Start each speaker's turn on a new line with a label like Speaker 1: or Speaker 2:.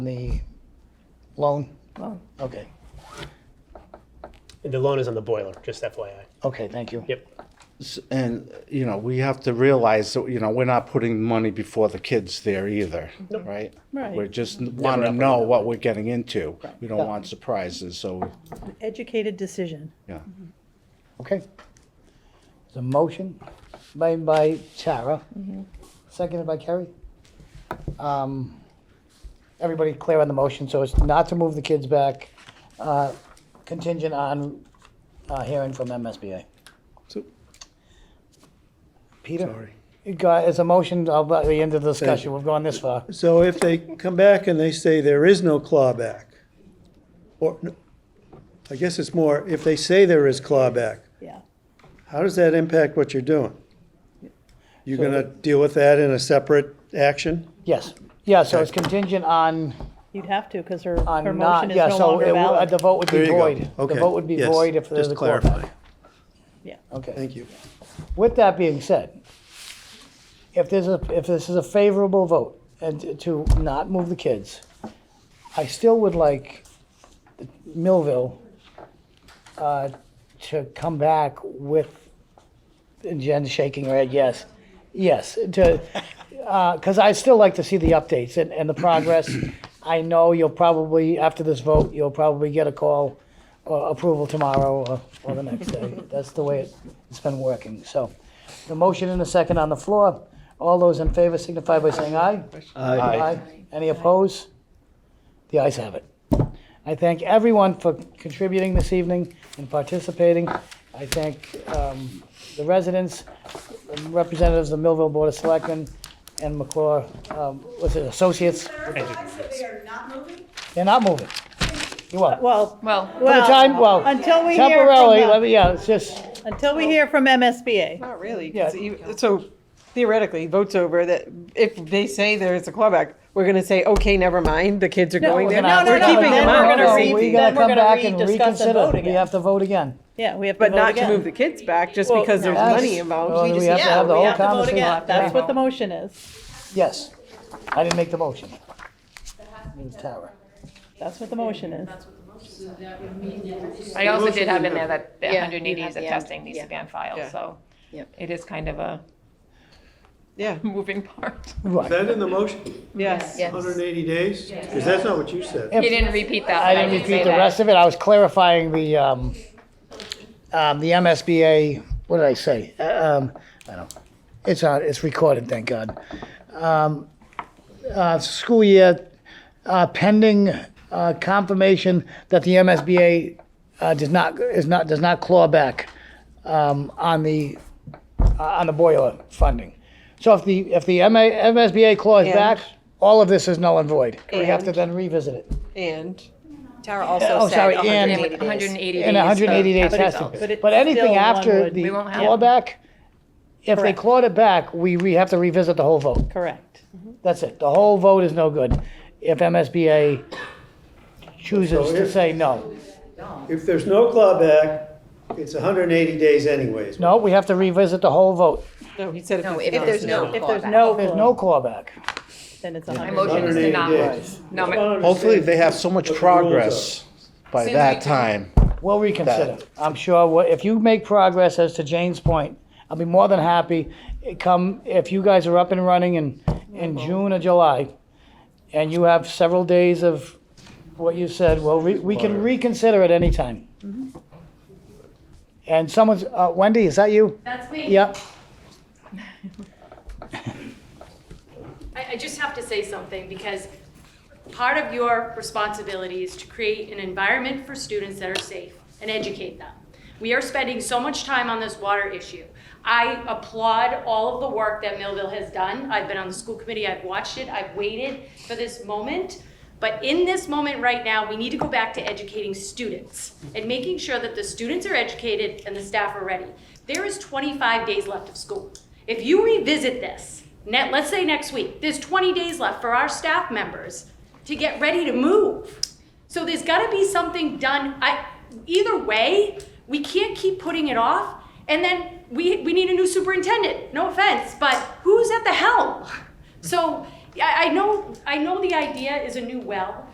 Speaker 1: the loan?
Speaker 2: Loan.
Speaker 1: Okay,
Speaker 3: And the loan is on the boiler, just FYI.
Speaker 1: okay, thank you.
Speaker 3: Yep.
Speaker 4: And, you know, we have to realize that, you know, we're not putting money before the kids there either, right?
Speaker 2: Right.
Speaker 4: We just want to know what we're getting into. We don't want surprises, so,
Speaker 2: Educated decision.
Speaker 4: yeah.
Speaker 1: Okay. It's a motion made by Tara, seconded by Kerry. Um, Everybody clear on the motion, so it's not to move the kids back, uh, contingent on uh, hearing from MSBA.
Speaker 4: So-
Speaker 1: Peter?
Speaker 5: Sorry.
Speaker 1: You got- It's a motion, I'll let you end the discussion, we've gone this far.
Speaker 5: So if they come back and they say there is no clawback, or, no, I guess it's more, if they say there is clawback,
Speaker 2: Yeah.
Speaker 5: how does that impact what you're doing? You're gonna deal with that in a separate action?
Speaker 1: Yes, yeah, so it's contingent on,
Speaker 2: You'd have to, because her, her
Speaker 1: on
Speaker 2: motion
Speaker 1: not,
Speaker 2: is
Speaker 1: yeah,
Speaker 2: no
Speaker 1: so
Speaker 2: longer
Speaker 1: it will- the
Speaker 2: valid.
Speaker 1: vote would
Speaker 5: There
Speaker 1: be
Speaker 5: you go.
Speaker 1: void. The
Speaker 5: Okay.
Speaker 1: vote would be
Speaker 5: Yes.
Speaker 1: void if there's
Speaker 5: Just
Speaker 1: a clawback.
Speaker 5: clarifying.
Speaker 2: Yeah.
Speaker 1: Okay.
Speaker 5: Thank you.
Speaker 1: With that being said, if there's a, if this is a favorable vote and to not move the kids, I still would like Millville uh, to come back with, and Jen's shaking her head, yes, yes, to, because i still like to see the updates and, and the progress. I know you'll probably, after this vote, you'll probably get a call or approval tomorrow or, or the next day. That's the way it- it's been working. So the motion and a second on the floor. All those in favor signify by saying aye. Any opposed? The ayes have it. I thank everyone for contributing this evening and participating. I thank um, the residents, representatives of Millville Board of Selectmen, and McClure, um, what's it, associates.
Speaker 6: Clarifies that they are not moving?
Speaker 1: They're not moving. You are.
Speaker 2: Well,
Speaker 7: Well,
Speaker 1: For the time, well,
Speaker 2: until we hear
Speaker 1: temporarily, let
Speaker 2: from,
Speaker 1: me, yeah, it's just,
Speaker 2: the- until we hear from MSBA.
Speaker 7: not really.
Speaker 1: Yeah.
Speaker 7: 'cause you- So theoretically, vote's over, that if they say there's a clawback, we're gonna say, okay, never mind, the kids are going
Speaker 1: we're
Speaker 7: there.
Speaker 1: gonna-
Speaker 7: We're
Speaker 1: no,
Speaker 2: no,
Speaker 7: keeping
Speaker 2: then
Speaker 7: them
Speaker 2: we're
Speaker 7: out.
Speaker 2: gonna
Speaker 1: no,
Speaker 2: re-
Speaker 1: we
Speaker 2: then
Speaker 1: gotta
Speaker 2: we're
Speaker 1: come
Speaker 2: gonna
Speaker 1: back and
Speaker 2: rediscuss the vote
Speaker 1: reconsider. We
Speaker 2: again.
Speaker 1: have to vote again.
Speaker 2: Yeah, we have to
Speaker 7: But
Speaker 2: vote
Speaker 7: not to move
Speaker 2: again.
Speaker 7: the kids back just
Speaker 2: Well,
Speaker 7: because there's
Speaker 1: Yes.
Speaker 7: money
Speaker 1: Well,
Speaker 7: involved.
Speaker 1: We have to
Speaker 2: Yeah,
Speaker 1: have the
Speaker 2: we
Speaker 1: whole
Speaker 2: have to vote
Speaker 1: conversation.
Speaker 2: again. That's what the motion is.
Speaker 1: Yes. I didn't make the motion. Tara.
Speaker 2: That's what the motion is.
Speaker 8: I also did have in there that the
Speaker 9: Yeah, you
Speaker 8: 180 days
Speaker 9: have
Speaker 8: of
Speaker 9: the-
Speaker 8: testing needs
Speaker 9: yeah.
Speaker 8: to be on file,
Speaker 7: Yeah.
Speaker 8: so
Speaker 9: Yep.
Speaker 8: it is kind of a
Speaker 7: Yeah,
Speaker 8: moving part.
Speaker 5: Is
Speaker 1: Right.
Speaker 5: that in the motion,
Speaker 7: yes.
Speaker 9: Yes.
Speaker 5: 180 days? Because that's not what you said.
Speaker 8: You didn't repeat that.
Speaker 1: I
Speaker 8: but
Speaker 1: didn't
Speaker 8: did say
Speaker 1: repeat the
Speaker 8: that.
Speaker 1: rest of it. I was clarifying the, um, um, the MSBA, what did I say? Uh, Um, I don't, it's on, it's recorded, thank God. Um, uh, school year, uh, pending, uh, confirmation that the MSBA, uh, does not, is not, does not claw back, um, on the, uh, on the boiler funding. So if the, if the MA, MSBA claws
Speaker 7: And-
Speaker 1: back, all of this is null and void. We have to
Speaker 7: And-
Speaker 1: then revisit it.
Speaker 7: And
Speaker 9: Tara
Speaker 1: Oh,
Speaker 9: also
Speaker 1: sorry,
Speaker 9: said
Speaker 1: and-
Speaker 9: 180 days.
Speaker 8: 180 days.
Speaker 1: In a hundred and eighty
Speaker 8: for-
Speaker 1: days
Speaker 8: for
Speaker 1: testing.
Speaker 8: results.
Speaker 2: But it's
Speaker 1: But anything
Speaker 2: still one
Speaker 1: after
Speaker 2: would-
Speaker 1: the
Speaker 8: We won't have-
Speaker 1: clawback, if they
Speaker 2: Correct.
Speaker 1: clawed it back, we, we have to revisit the whole vote.
Speaker 2: Correct.
Speaker 1: That's it. The whole vote is no good if MSBA chooses
Speaker 5: So
Speaker 1: to
Speaker 5: if-
Speaker 1: say no.
Speaker 5: If there's no clawback, it's 180 days anyways.
Speaker 1: No, we have to revisit the whole vote.
Speaker 7: no, he said if
Speaker 9: No,
Speaker 7: there's.
Speaker 9: if there's no
Speaker 2: If there's
Speaker 9: clawback.
Speaker 2: no,
Speaker 1: There's no clawback.
Speaker 2: then it's
Speaker 8: My
Speaker 2: 100.
Speaker 8: motion is to
Speaker 5: 180
Speaker 8: not
Speaker 5: days.
Speaker 8: move. No, ma-
Speaker 4: Hopefully, they have so much
Speaker 5: What the rules are.
Speaker 4: progress by
Speaker 7: Soon
Speaker 4: that
Speaker 7: we-
Speaker 4: time.
Speaker 1: We'll reconsider. I'm sure, what- if you make progress as to Jane's point, I'll be more than happy, eh, come, if you guys are up and running in, in June or July, and you have several days of what you said, well, we, we can reconsider at any time. And someone's, uh, Wendy, is that you?
Speaker 6: That's me.
Speaker 1: Yep.
Speaker 6: I, I just have to say something because part of your responsibility is to create an environment for students that are safe and educate them. We are spending so much time on this water issue. I applaud all of the work that Millville has done. I've been on the school committee, I've watched it, I've waited for this moment. But in this moment right now, we need to go back to educating students and making sure that the students are educated and the staff are ready. There is 25 days left of school. If you revisit this, net, let's say next week, there's 20 days left for our staff members to get ready to move. So there's got to be something done. I, either way, we can't keep putting it off. And then we, we need a new superintendent. No offense, but who's at the helm? So I, I know, I know the idea is a new well,